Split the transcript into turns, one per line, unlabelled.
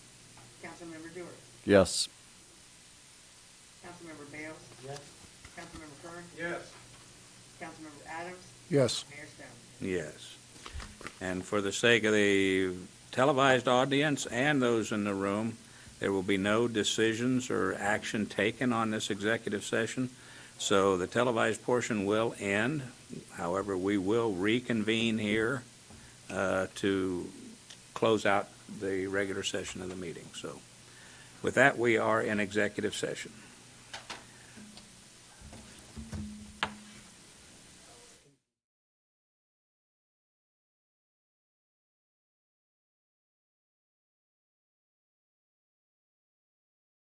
Councilmember Dewar,
Yes.
Councilmember Bales,
Yes.
Councilmember Kern,
Yes.
Councilmember Adams,
Yes.
Mayor Stone.
Yes. And for the sake of the televised audience and those in the room, there will be no decisions or action taken on this executive session. So the televised portion will end. However, we will reconvene here uh, to close out the regular session of the meeting. So with that, we are in executive session.